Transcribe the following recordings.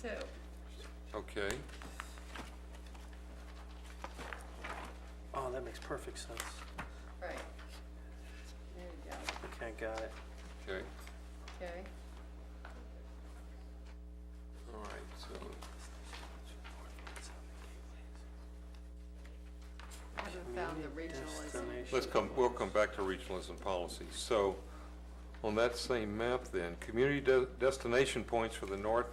too. Okay, Oh, that makes perfect sense. Right. There you go, Okay, got it. okay, okay. all right, so, I Haven't found the regionalism. Destination. let's come, we'll come back to regionalism policy. So, on that same map then, community de- destination points for the north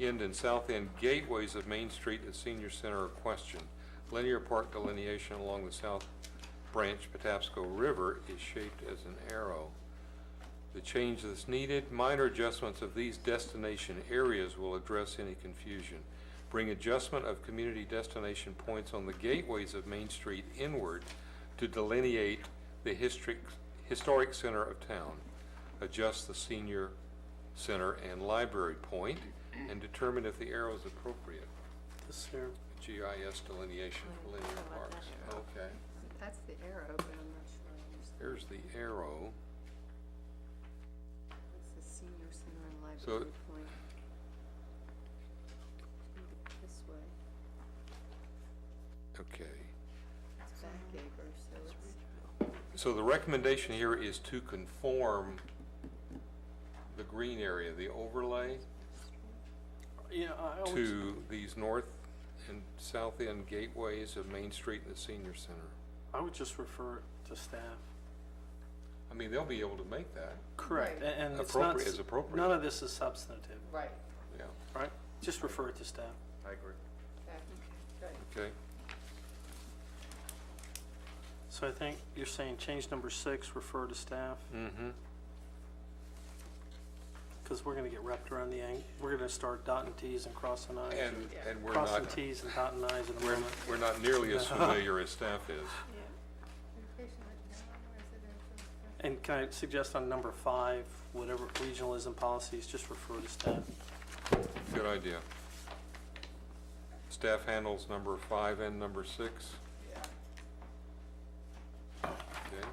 end and south end gateways of Main Street and Senior Center are questioned. Linear park delineation along the south branch Patapsco River is shaped as an arrow. The change that's needed, minor adjustments of these destination areas will address any confusion. Bring adjustment of community destination points on the gateways of Main Street inward to delineate the historic, historic center of town. Adjust the senior center and library point and determine if the arrow is appropriate. This here. GIS delineation for linear parks. Okay. That's the arrow, but I'm not sure. I understand. Here's the arrow. It's the senior center and So- library point. This way, Okay. it's back acre, so it's, So the recommendation here is to conform the green area, the overlay, Yeah, I always, to these north and south end gateways of Main Street and the senior center. I would just refer it to staff. I mean, they'll be able to make that, Correct, a- Right. and it's not, Appropriate s- is appropriate. none of this is substantive, right, yeah, right? Just refer it to staff. I agree. back, right. okay? So I think you're saying change number six, refer to staff, Mm-hmm, because we're gonna get wrapped around the ang, we're gonna start dotting Ts and crossing Is. and, and we're Crossing not, Ts and dotting Is in a we're, moment. we're not nearly as familiar as staff is. And can I suggest on number five, whatever regionalism policies, just refer to staff? Good idea. Staff handles number five and number six. Okay.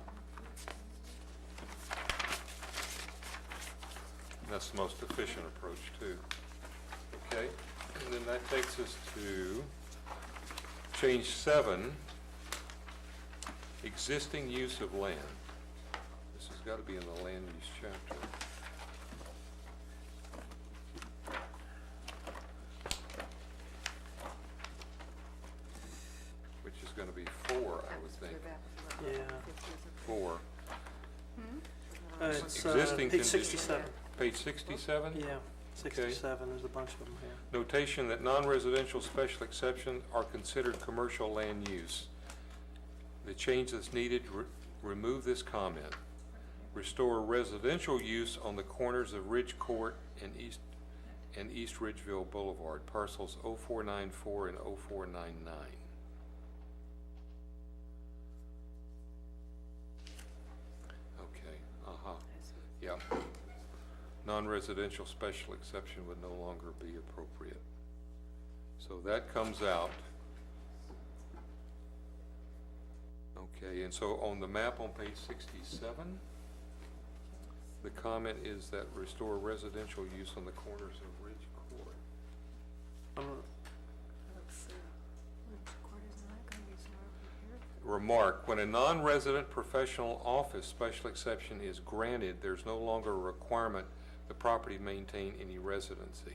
That's the most efficient approach, too. Okay, and then that takes us to change seven, existing use of land. This has got to be in the land use chapter. Which is going to be four, I would think, uh, Yeah. four. Uh, it's, uh, Existing page conditions. sixty-seven, Page sixty-seven? yeah, sixty-seven, there's a bunch of them here. Notation that non-residential special exceptions are considered commercial land use. The change that's needed, re- remove this comment. Restore residential use on the corners of Ridge Court and East, and East Ridgeville Boulevard, parcels 0494 and 0499. Okay, uh-huh, yeah. Non-residential special exception would no longer be appropriate. So that comes out. Okay, and so on the map on page sixty-seven, the comment is that restore residential use on the corners of Ridge Court. Um, Remark, when a non-resident professional office special exception is granted, there's no longer a requirement the property maintain any residency.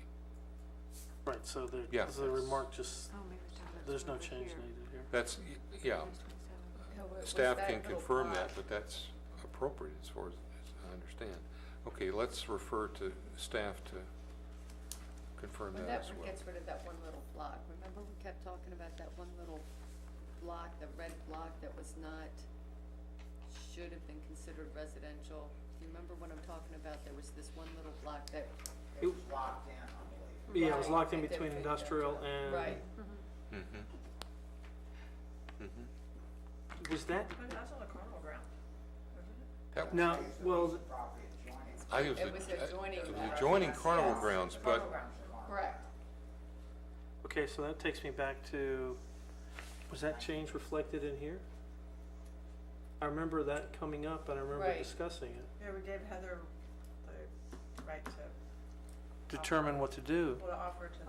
Right, so there, Yeah. the remark just, there's no change needed here. That's, yeah, staff can confirm that, but that's appropriate as far as as I understand. Okay, let's refer to staff to confirm When that that as one well. gets rid of that one little block, remember we kept talking about that one little block, the red block that was not, should have been considered residential? Do you remember what I'm talking about? There was this one little block that, It was Yeah, it was Right, locked in they did between fit that. industrial and. right, Mm-hmm. Mm-hmm. Was that, That's on the carnival ground. That, no, well, I was, It was uh, adjoining it was that. adjoining Yes, carnival yes. grounds, Carnival but grounds. correct. okay, so that takes me back to, was that change reflected in here? I remember that coming up and I remember Right. discussing it. Yeah, we gave Heather the right to, Determine what to do. what to offer to